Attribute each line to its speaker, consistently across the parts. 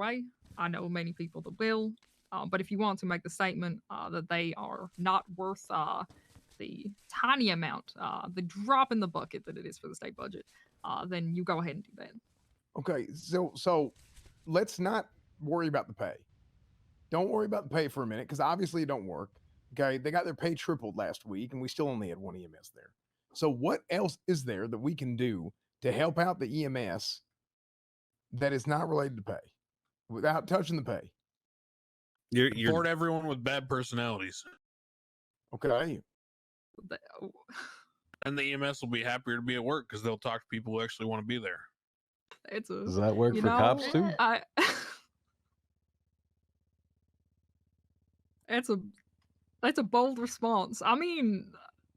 Speaker 1: way. I know many people that will, uh, but if you want to make the statement uh, that they are not worth uh, the tiny amount, uh, the drop in the bucket that it is for the state budget, uh, then you go ahead and do that.
Speaker 2: Okay, so so let's not worry about the pay. Don't worry about the pay for a minute because obviously it don't work. Okay, they got their pay tripled last week, and we still only had one EMS there. So what else is there that we can do to help out the EMS that is not related to pay, without touching the pay?
Speaker 3: You're,
Speaker 4: you
Speaker 3: you're
Speaker 4: everyone with bad personalities,
Speaker 2: Okay,
Speaker 1: The- oh,
Speaker 4: and the EMS will be happier to be at work because they'll talk to people who actually want to be there.
Speaker 1: It's a
Speaker 5: Does that work
Speaker 1: You
Speaker 5: for cops
Speaker 1: know,
Speaker 5: too?
Speaker 1: I. that's a that's a bold response. I mean,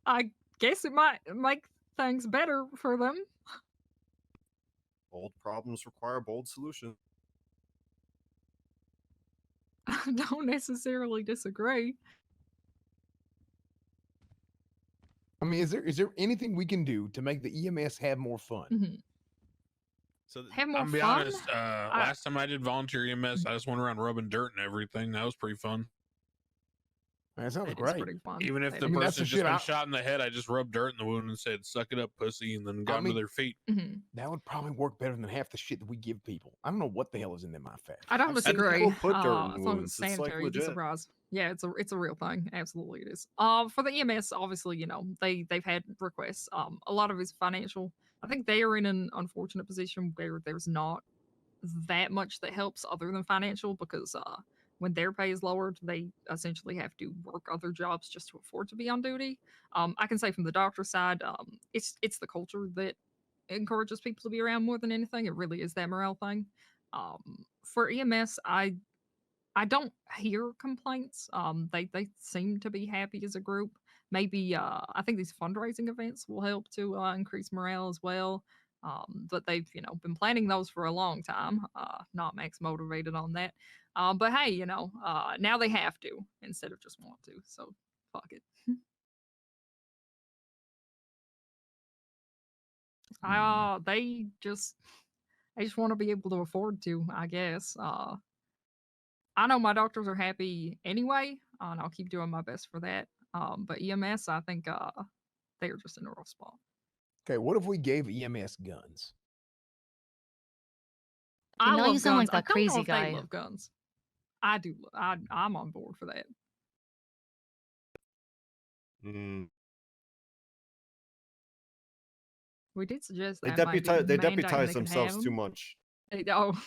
Speaker 1: I guess it might make things better for them.
Speaker 3: bold problems require bold solutions.
Speaker 1: I don't necessarily disagree.
Speaker 2: I mean, is there is there anything we can do to make the EMS have more fun?
Speaker 1: Mhm.
Speaker 3: So th-
Speaker 1: Have more
Speaker 4: I'm be
Speaker 1: fun.
Speaker 4: honest. Uh, last time I did volunteer EMS, I just went around rubbing dirt and everything. That was pretty fun.
Speaker 2: Man, that sounds
Speaker 1: That is
Speaker 2: great.
Speaker 1: pretty fun.
Speaker 4: Even if
Speaker 1: That
Speaker 4: the
Speaker 1: is-
Speaker 2: mean, that's the
Speaker 4: person just
Speaker 2: shit
Speaker 4: been
Speaker 2: I-
Speaker 4: shot in the head, I just rubbed dirt in the wound and said, "Suck it up, pussy," and then got them
Speaker 2: mean-
Speaker 4: to their feet.
Speaker 1: Mhm.
Speaker 2: That would probably work better than half the shit that we give people. I don't know what the hell is in them. My fat.
Speaker 1: I don't
Speaker 3: I've seen people
Speaker 1: disagree.
Speaker 3: put dirt
Speaker 1: uh,
Speaker 3: in
Speaker 1: as long as
Speaker 3: wounds.
Speaker 1: it's
Speaker 3: It's, like,
Speaker 1: sanitary, you'd be
Speaker 3: legit.
Speaker 1: surprised. Yeah, it's a it's a real thing. Absolutely, it is. Um, for the EMS, obviously, you know they they've had requests. Um, a lot of it's financial. I think they are in an unfortunate position where there's not that much that helps other than financial because uh, when their pay is lowered, they essentially have to work other jobs just to afford to be on duty. Um, I can say from the doctor's side, um, it's it's the culture that encourages people to be around more than anything. It really is that morale thing. Um, for EMS, I I don't hear complaints. Um, they they seem to be happy as a group. Maybe uh, I think these fundraising events will help to uh, increase morale as well. Um, but they've you know been planning those for a long time. Uh, not Max motivated on that. Um, but hey, you know uh, now they have to instead of just want to. So fuck it. Uh, they just they just want to be able to afford to, I guess. Uh, I know my doctors are happy anyway, uh, and I'll keep doing my best for that. Um, but EMS, I think uh, they are just in a rough spot.
Speaker 2: Okay, what if we gave EMS guns?
Speaker 1: I
Speaker 6: know
Speaker 1: love
Speaker 6: you sound like
Speaker 1: guns. I
Speaker 6: that
Speaker 1: don't know
Speaker 6: crazy
Speaker 1: if they
Speaker 6: guy.
Speaker 1: love guns. I do. lo- I, I'm on board for that.
Speaker 3: Mm.
Speaker 1: We did suggest
Speaker 3: They
Speaker 1: that might be
Speaker 3: deputize they
Speaker 1: mandating
Speaker 3: deputize
Speaker 1: can
Speaker 3: themselves
Speaker 1: have
Speaker 3: too
Speaker 1: 'em.
Speaker 3: much.
Speaker 1: They- Oh,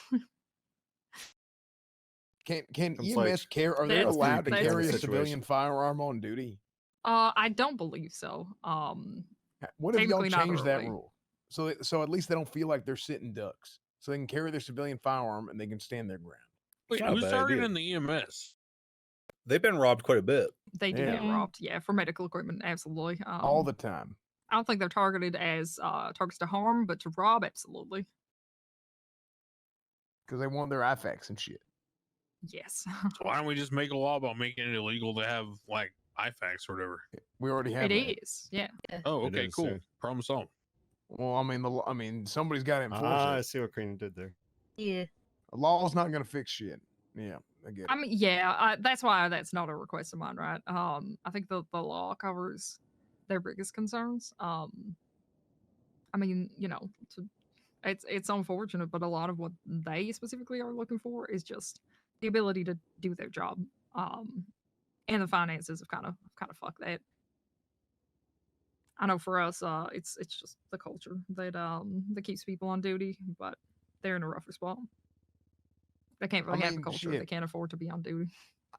Speaker 2: Can can
Speaker 3: It's
Speaker 2: EMS
Speaker 3: like-
Speaker 2: care? Are they
Speaker 1: That's-
Speaker 2: allowed to
Speaker 1: that's-
Speaker 2: carry a
Speaker 3: Situation.
Speaker 2: civilian firearm on duty?
Speaker 1: uh, I don't believe so. Um,
Speaker 2: Ha- What if y'all
Speaker 1: Technically not,
Speaker 2: change
Speaker 1: but
Speaker 2: that
Speaker 1: like-
Speaker 2: rule? So that- so at least they don't feel like they're sitting ducks. So they can carry their civilian firearm and they can stand their ground.
Speaker 4: Wait,
Speaker 5: not a
Speaker 4: who's
Speaker 5: bad idea.
Speaker 4: targeting the E EMS?
Speaker 5: They've been robbed quite a
Speaker 3: Ah,
Speaker 5: bit.
Speaker 1: they do get
Speaker 6: Yeah.
Speaker 1: robbed. Yeah, for medical equipment, absolutely. Um,
Speaker 2: All the time.
Speaker 1: I don't think they're targeted as uh, targets to harm, but to rob, absolutely.
Speaker 2: Because they want their IFACs and shit.
Speaker 1: Yes,
Speaker 4: So why don't we just make a law about making it illegal to have like IFAX or whatever?
Speaker 2: We already have
Speaker 1: it
Speaker 2: that.
Speaker 1: is. Yeah,
Speaker 4: Oh,
Speaker 3: It
Speaker 4: okay,
Speaker 3: is,
Speaker 4: cool.
Speaker 3: yeah.
Speaker 4: Problem solved.
Speaker 2: Well, I mean the law- I mean somebody's got to enforce
Speaker 3: Ah, I
Speaker 2: it.
Speaker 3: see what Karina did there.
Speaker 6: Yeah.
Speaker 2: A law's not going to fix shit. Yeah, I get it.
Speaker 1: I mean, yeah, I, that's why that's not a request of mine, right? Um, I think the the law covers their biggest concerns. Um, I mean, you know, to, it's it's unfortunate, but a lot of what they specifically are looking for is just the ability to do their job. Um, and the finances have kind of kind of fucked that. I know for us, uh, it's it's just the culture that um that keeps people on duty, but they're in a rougher spot. They can't
Speaker 2: I
Speaker 1: really have
Speaker 2: mean,
Speaker 1: a culture. They
Speaker 2: shit.
Speaker 1: can't afford to be on duty.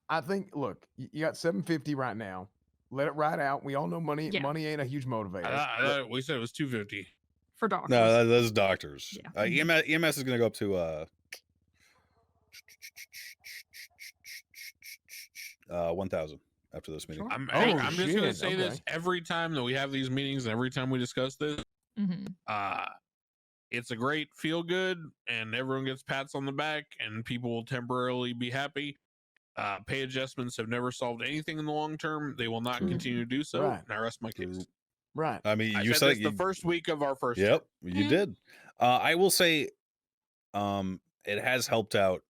Speaker 2: I think. Look, y- you got seven fifty right now. Let it ride out. We all know money.
Speaker 1: Yeah.
Speaker 2: Money ain't a huge
Speaker 4: I
Speaker 2: motivator.
Speaker 3: Ah,
Speaker 4: thought- I
Speaker 2: but-
Speaker 4: thought we said it was two fifty.
Speaker 1: for doctors.
Speaker 5: No, that, that's doctors.
Speaker 1: Yeah.
Speaker 5: Uh, EMS, EMS is going to go up to uh, uh one thousand after this meeting.
Speaker 1: Sure.
Speaker 4: I'm, hey,
Speaker 2: Oh,
Speaker 4: I'm just gonna
Speaker 2: shit,
Speaker 4: say this
Speaker 2: okay.
Speaker 4: every time that we have these meetings and every time we discuss this.
Speaker 1: Mhm.
Speaker 4: Uh, it's a great feel good, and everyone gets pats on the back, and people will temporarily be happy. Uh, pay adjustments have never solved anything in the long term. They will not
Speaker 1: True.
Speaker 4: continue to do so.
Speaker 2: Mm-hmm. Right.
Speaker 4: And I rest my case.
Speaker 2: right.
Speaker 5: I mean,
Speaker 4: I
Speaker 5: you
Speaker 4: said
Speaker 5: said
Speaker 4: this
Speaker 5: it, you,
Speaker 4: the first Mm-hmm. week of our first.
Speaker 5: Yep, you did. Uh, I will say, um, it has helped out